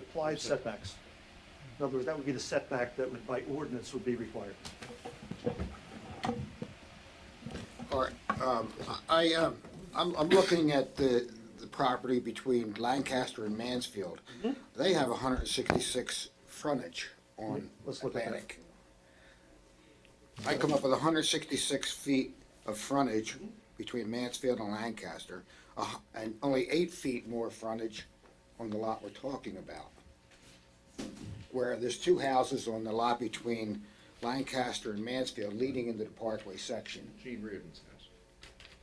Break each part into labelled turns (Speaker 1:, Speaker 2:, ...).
Speaker 1: implied setbacks. In other words, that would be the setback that would by ordinance would be required.
Speaker 2: All right, um, I, um, I'm, I'm looking at the, the property between Lancaster and Mansfield.
Speaker 1: Mm-hmm.
Speaker 2: They have hundred and sixty-six frontage on
Speaker 1: Mm-hmm. Let's look at that.
Speaker 2: Atlantic. I come up with hundred and sixty-six feet of frontage
Speaker 1: Mm-hmm.
Speaker 2: between Mansfield and Lancaster, a hu- and only eight feet more frontage on the lot we're talking about. Where there's two houses on the lot between Lancaster and Mansfield leading into the Parkway section.
Speaker 3: Gene Reardon's house.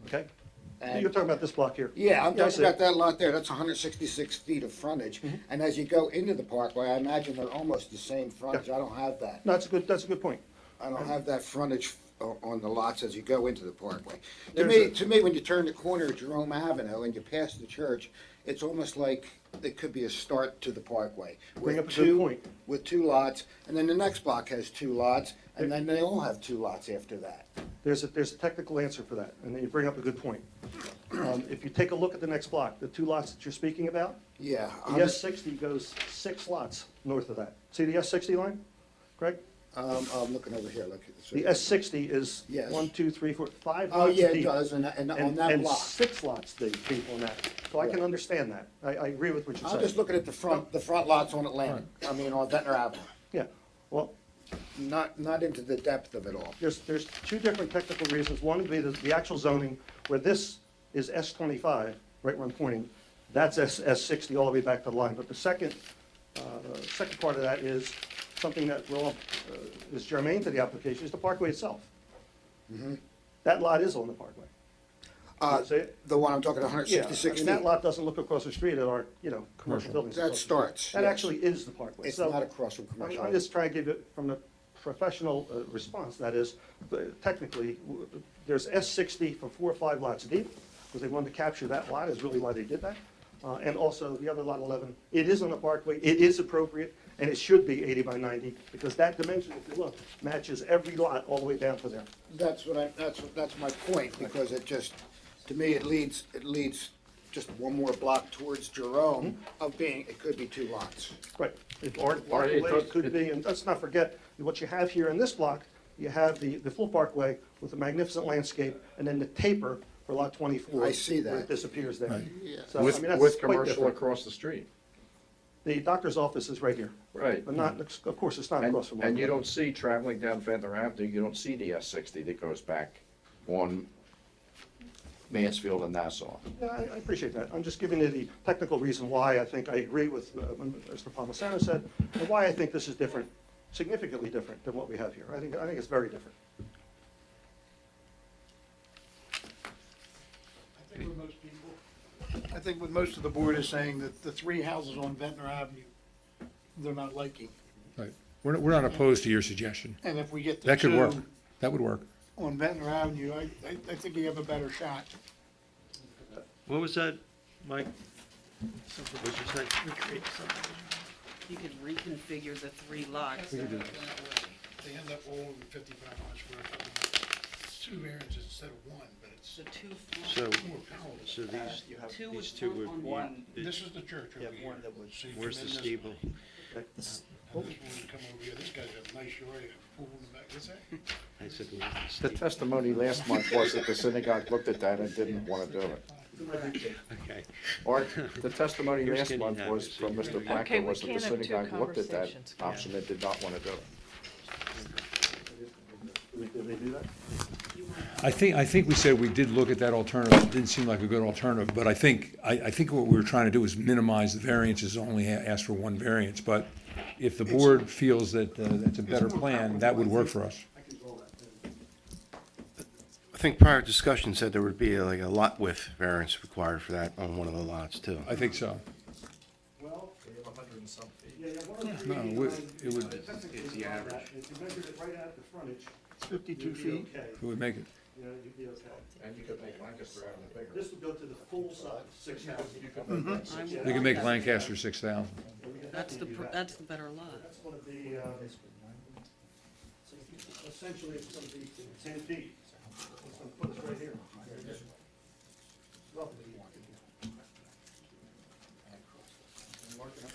Speaker 1: Okay?
Speaker 2: And-
Speaker 1: You're talking about this block here.
Speaker 2: Yeah, I'm
Speaker 1: I
Speaker 2: talking
Speaker 1: see
Speaker 2: about
Speaker 1: it.
Speaker 2: that lot there, that's hundred sixty-six feet of frontage,
Speaker 1: Mm-hmm.
Speaker 2: and as you go into the parkway, I imagine they're almost the same frontage, I don't have that.
Speaker 1: No, that's a good, that's a good point.
Speaker 2: I don't have that frontage o- on the lots as you go into the parkway. To
Speaker 1: There's
Speaker 2: me,
Speaker 1: a-
Speaker 2: to me, when you turn the corner of Jerome Avenue and you pass the church, it's almost like it could be a start to the parkway.
Speaker 1: Bring
Speaker 2: with
Speaker 1: up a good
Speaker 2: two-
Speaker 1: point.
Speaker 2: With two lots, and then the next block has two lots, and then they all have two lots after that.
Speaker 1: There's a, there's a technical answer for that, and you bring up a good point. Um, If you take a look at the next block, the two lots that you're speaking about,
Speaker 2: Yeah.
Speaker 1: the S sixty goes six lots north of that. See the S sixty line, Greg?
Speaker 2: Um, I'm looking over here, look. it's-
Speaker 1: The S sixty is
Speaker 2: Yes.
Speaker 1: one, two, three, four, five
Speaker 2: Oh,
Speaker 1: lots
Speaker 2: yeah, it
Speaker 1: deep.
Speaker 2: does, and, and on
Speaker 1: And,
Speaker 2: that
Speaker 1: and
Speaker 2: block.
Speaker 1: six lots deep, deep on that. So I can
Speaker 2: Right.
Speaker 1: understand that. I, I agree with what you're
Speaker 2: I'm
Speaker 1: saying.
Speaker 2: just looking at the front, the front lots on Atlantic, I mean, on Ventnor Avenue,
Speaker 1: Yeah, well,
Speaker 2: not, not into the depth of it all.
Speaker 1: there's, there's two different technical reasons. One would be the, the actual zoning, where this is S twenty-five, right where I'm pointing, that's S, S sixty all the way back to the line. But the second, uh, second part of that is something that will, uh, is germane to the application, is the parkway itself. That lot is on the parkway.
Speaker 2: Uh,
Speaker 1: See it?
Speaker 2: the one I'm talking, hundred
Speaker 1: Yeah, I
Speaker 2: sixty-six
Speaker 1: mean,
Speaker 2: feet.
Speaker 1: that lot doesn't look across the street at our, you know, commercial buildings.
Speaker 2: That
Speaker 1: across the street.
Speaker 2: starts,
Speaker 1: That
Speaker 2: yes.
Speaker 1: actually is the parkway.
Speaker 2: It's
Speaker 1: So,
Speaker 2: not across from commercial.
Speaker 1: I'm- I'm just trying to give it from a professional uh, response, that is, uh, technically, w- there's S sixty for four or five lots deep, because they wanted to capture that lot, is really why they did that. Uh, and also, the other lot eleven, it is on the parkway, it is appropriate, and it should be eighty by ninety, because that dimension, if you look, matches every lot all the way down to there.
Speaker 2: That's what I, that's, what- that's my point, because it just, to me, it leads, it leads just one more block towards Jerome
Speaker 1: Mm-hmm.
Speaker 2: of being, it could be two lots.
Speaker 1: Right, it, or, or
Speaker 3: Or
Speaker 1: it
Speaker 3: it does-
Speaker 1: could be, and let's not forget, what you have here in this block, you have the, the full parkway with the magnificent landscape, and then the taper for lot twenty-four.
Speaker 2: I see that.
Speaker 1: Where it disappears there. So, I
Speaker 3: With,
Speaker 1: mean, that's
Speaker 3: with
Speaker 1: quite
Speaker 3: commercial
Speaker 1: different.
Speaker 3: across the street.
Speaker 1: The doctor's office is right here.
Speaker 3: Right.
Speaker 1: But not, of course, it's not
Speaker 3: And,
Speaker 1: across from.
Speaker 3: and
Speaker 1: Walmart.
Speaker 3: you don't see, traveling down Ventnor Avenue, you don't see the S sixty that goes back on Mansfield and Nassau.
Speaker 1: Yeah, I, I appreciate that. I'm just giving you the technical reason why I think I agree with uh, what Mr. Palmisano said, and why I think this is different, significantly different than what we have here. I think, I think it's very different.
Speaker 4: I think with most people, I think what most of the board is saying, that the three houses on Ventnor Avenue, they're not liking.
Speaker 5: Right. We're, we're not opposed to your suggestion.
Speaker 4: And if we get the
Speaker 5: That could work.
Speaker 4: two
Speaker 5: That would work.
Speaker 4: on Ventnor Avenue, I, I, I think we have a better shot.
Speaker 6: What was that, Mike? What'd you say?
Speaker 7: You could reconfigure the three lots.
Speaker 4: They end up all over fifty-five hundred square foot. It's two variances instead of one, but it's
Speaker 7: So two,
Speaker 6: So,
Speaker 4: more palatable.
Speaker 6: so these,
Speaker 7: two
Speaker 6: these
Speaker 7: was
Speaker 6: two
Speaker 7: built
Speaker 6: would
Speaker 7: on
Speaker 6: be,
Speaker 7: one.
Speaker 4: This is the church over here. So you come
Speaker 6: where's
Speaker 4: in
Speaker 6: the
Speaker 4: this
Speaker 6: steeple?
Speaker 4: way,
Speaker 1: uh,
Speaker 4: and This one, you come over here, this guy's got a nice yard, a pool in the back, what's that?
Speaker 6: I said, where's the
Speaker 3: The
Speaker 6: steeple?
Speaker 3: testimony last month was that the synagogue looked at that and didn't want to do it.
Speaker 6: Okay.
Speaker 3: Or the testimony
Speaker 6: You're
Speaker 3: last
Speaker 6: skinny
Speaker 3: month
Speaker 6: now,
Speaker 3: was
Speaker 6: so
Speaker 3: from
Speaker 6: you're
Speaker 3: Mr.
Speaker 6: gonna-
Speaker 7: Okay,
Speaker 3: Blacker
Speaker 7: we
Speaker 3: was that the
Speaker 7: can't have two
Speaker 3: synagogue looked at that
Speaker 7: conversations.
Speaker 3: option and did not want to do it.
Speaker 1: Did they- did they do that?
Speaker 5: I think, I think we said we did look at that alternative. It didn't seem like a good alternative, but I think, I, I think what we were trying to do was minimize the variances, only a- ask for one variance. But if the board feels that uh, that's a better plan, that would work for us.
Speaker 8: I think prior discussion said there would be like a lot width variance required for that on one of the lots too.
Speaker 5: I think so. No, it would, it would, it
Speaker 1: It's the average. If you measured it right at the frontage,
Speaker 4: Fifty-two
Speaker 1: you'd be
Speaker 4: feet.
Speaker 1: okay.
Speaker 5: would make it.
Speaker 1: You know, you'd be okay.
Speaker 3: And you could make Lancaster Avenue bigger.
Speaker 1: This would go to the full size, six houses.
Speaker 7: I would
Speaker 5: They could
Speaker 7: want
Speaker 5: make
Speaker 7: that.
Speaker 5: Lancaster six thousand.
Speaker 7: That's the, pr- that's the better lot.
Speaker 1: That's gonna be, uh, essentially it's gonna be ten feet. It's gonna put us right here. Roughly.